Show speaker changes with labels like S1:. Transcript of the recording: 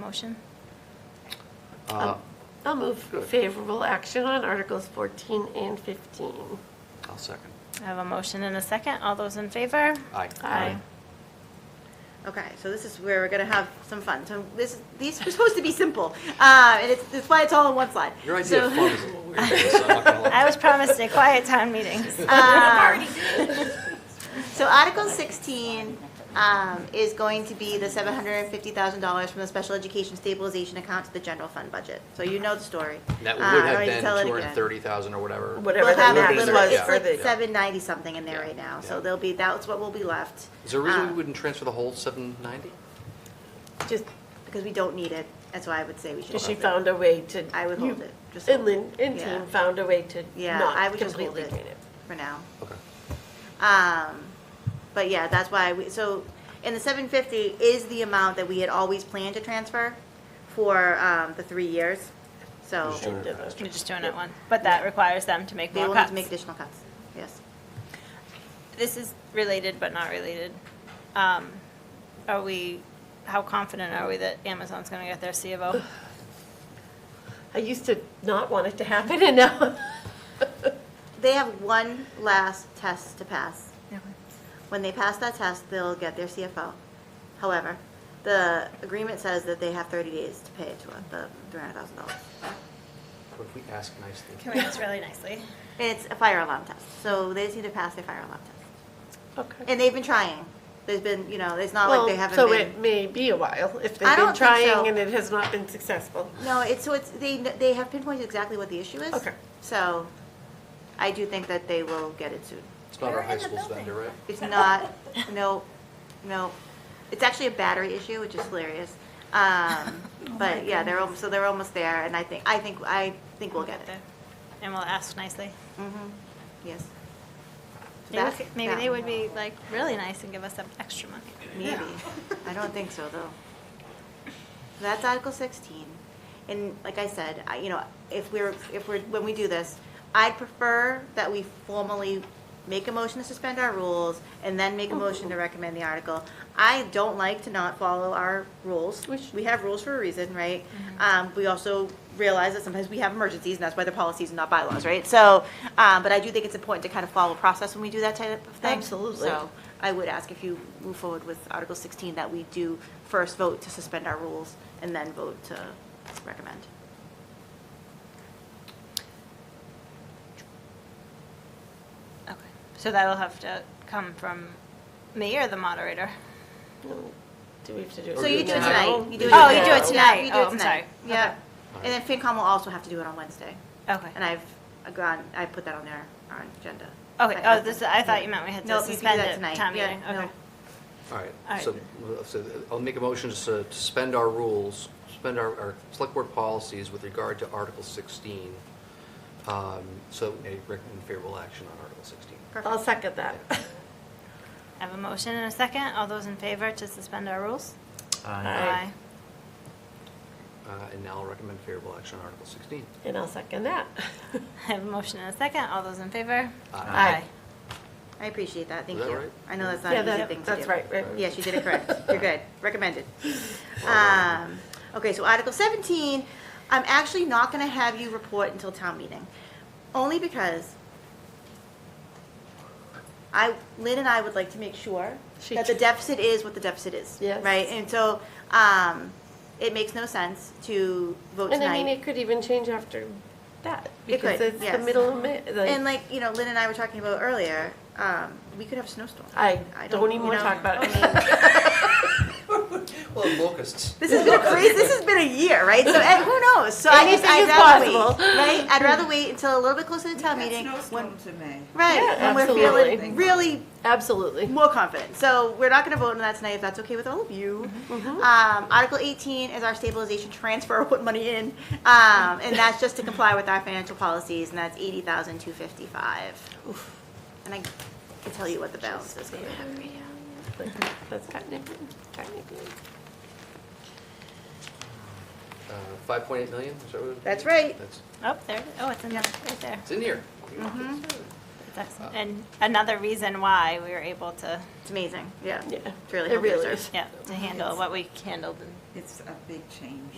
S1: motion?
S2: Uh,
S3: I'll move favorable action on Articles 14 and 15.
S2: I'll second.
S1: I have a motion and a second. All those in favor?
S2: Aye.
S3: Aye.
S4: Okay, so this is where we're gonna have some fun. So this, these are supposed to be simple, uh, and it's, that's why it's all on one slide.
S2: Your idea of
S4: So-
S2: fun is a little weird. so I'm not gonna lie.
S1: I was promised a quiet town meetings.
S4: Um, So Article 16 um, is going to be the $750,000 from the special education stabilization account to the general fund budget. So you know the story.
S2: That
S4: Uh, I
S1: Ah,
S2: would
S4: don't
S2: have
S4: need to
S2: been
S4: tell it again.
S2: 230,000 or whatever.
S5: Whatever
S4: We'll
S5: the
S4: have
S2: We'll
S4: that
S2: be
S4: little,
S5: max
S2: there,
S5: was
S2: yeah.
S4: it's
S5: for
S4: like
S5: the,
S4: 790 something in there
S2: Yeah,
S4: right now,
S2: yeah.
S4: so there'll be, that's what will be left.
S2: Is there a reason we
S4: Uh,
S1: Ah.
S2: wouldn't transfer the whole 790?
S4: Just because we don't need it, that's why I would say we should.
S3: Because she
S4: hold it.
S3: found a way to.
S4: I would
S3: you-
S4: hold it, just
S3: And
S4: hold it.
S3: Lynn and
S4: Yeah.
S3: team found a way to
S4: Yeah, I
S3: not
S4: would just hold
S3: completely
S4: it
S3: drain it.
S4: for now.
S2: Okay.
S4: Um, but yeah, that's why we, so, and the seven fifty is the amount that we had always planned to transfer for, um, the three years. So
S2: Just doing it
S3: Did it.
S2: faster.
S1: We're just doing it one, but that requires them to make
S4: they
S1: more
S4: will need to
S1: cuts.
S4: make additional cuts, yes.
S1: This is related but not related. Um, Are we, how confident are we that Amazon's going to get their C of O?
S3: I used to not want it to happen and now.
S4: They have one last test to pass. When they pass that test, they'll get their CFO. However, the agreement says that they have thirty days to pay it to us, the three hundred thousand dollars.
S2: What if we ask nicely?
S1: Can we just really nicely?
S4: It's a fire alarm test, so they just need to pass their fire alarm test.
S3: Okay.
S4: And they've been trying. There's been, you know, it's not like they
S3: Well,
S4: haven't
S3: so
S4: been.
S3: it may be a while if
S4: I
S3: they've been
S4: don't think so.
S3: trying and it has not been successful.
S4: No, it's, so it's, they, they have pinpointed exactly what the issue is.
S3: Okay.
S4: So I do think that they will get it soon.
S2: It's not our high school's vendor, right?
S4: It's not, no, no, it's actually a battery issue, which is hilarious. Um,
S1: Oh
S4: But yeah, they're, al- so they're almost there and I think, I think, I think we'll get it.
S1: And we'll ask nicely.
S4: Mhm. Yes. So
S1: Maybe we
S4: that's
S1: could- Maybe
S4: that.
S1: they would be like really nice and give us some extra money.
S4: Maybe. I don't think so, though. That's Article 16. And like I said, I, you know, if we're, if we're, when we do this, I'd prefer that we formally make a motion to suspend our rules and then make a motion to recommend the article. I don't like to not follow our rules.
S3: Which- Mm-hmm.
S4: We have rules for a reason, right? Um, we also realize that sometimes we have emergencies, and that's why they're policies and not bylaws, right? So, um, but I do think it's important to kind of follow process when we do that type of thing.
S3: Absolutely.
S4: So I would ask if you move forward with Article 16, that we do first vote to suspend our rules and then vote to recommend.
S1: Okay. So that'll have to come from me or the moderator?
S3: No, Do we have to do it?
S4: So you do it
S2: tonight.
S4: tonight. You do it
S1: Oh, you
S4: tonight.
S1: do it
S4: Yeah,
S1: tonight.
S4: you do
S1: Oh,
S4: it
S1: I'm
S4: tonight.
S1: sorry.
S4: Yeah.
S2: Okay.
S4: And then FinCom will also have to do it on Wednesday.
S1: Okay.
S4: And I've gone, I put that on their, our agenda.
S1: Okay,
S4: I-
S1: oh, this, I thought you meant we had
S4: No,
S1: to
S4: you do
S1: suspend
S4: that
S1: it,
S4: tonight.
S1: town
S4: Yeah,
S1: meeting,
S4: no.
S1: okay.
S2: All right,
S1: All right.
S2: so, so I'll make a motion to su- to suspend our rules, suspend our, our select board policies with regard to Article 16. um, So a recommend favorable action on Article 16.
S3: I'll
S4: Perfect.
S3: second that.
S1: I have a motion and a second, all those in favor to suspend our rules?
S3: Aye.
S2: Uh, And now I'll recommend favorable action on Article 16.
S3: And I'll second that.
S1: I have a motion and a second, all those in favor?
S2: Aye.
S4: I appreciate that, thank
S2: that
S4: you.
S2: right?
S4: I know that's not
S3: Yeah,
S4: an easy
S3: that-
S4: thing to do.
S3: that's right, right.
S4: Yes, you did it correct. You're good. Recommended. Um, okay, so Article 17, I'm actually not going to have you report until town meeting, only because I, Lynn and I would like to make sure
S3: She-
S4: that the deficit is what the deficit is.
S3: Yes.
S4: Right? And so, um, it makes no sense to vote
S3: And I mean,
S4: tonight.
S3: it could even change after that.
S4: It
S3: Because
S4: could,
S3: it's the
S4: yes.
S3: middle of May.
S4: And like, you know, Lynn and I were talking about earlier, um, we could have a snowstorm.
S3: I don't even
S4: you
S3: want to
S4: know,
S3: talk about it.
S4: I mean,
S2: Well, locusts.
S4: This has been a crazy. This has been a year, right? So and who knows? So I just,
S3: Anything
S4: I'd
S3: is
S4: rather
S3: possible.
S4: wait, right? I'd rather wait until a little bit closer to town meeting, when,
S5: to May.
S4: right?
S3: Yeah,
S4: when we're
S3: absolutely.
S4: feeling really
S3: Absolutely.
S4: more confident. So we're not going to vote on that tonight, if that's okay with all of you.
S3: Mm-hmm.
S4: Um, Article 18 is our stabilization transfer, put money in, um, and that's just to comply with our financial policies, and that's 80,255. And I can tell you what the balance is going to be.
S3: That's technically, technically.
S2: Uh, 5.8 million, is that what? it-
S4: That's right.
S2: That's-
S1: Oh, there, oh, it's in there, right there.
S2: It's in here.
S1: It's That's, and another reason why we were able to,
S4: It's amazing, yeah.
S3: Yeah.
S4: It's really
S3: It
S4: helped
S3: really
S4: preserve.
S3: is.
S1: yeah, to handle what we handled and
S5: It's a big change.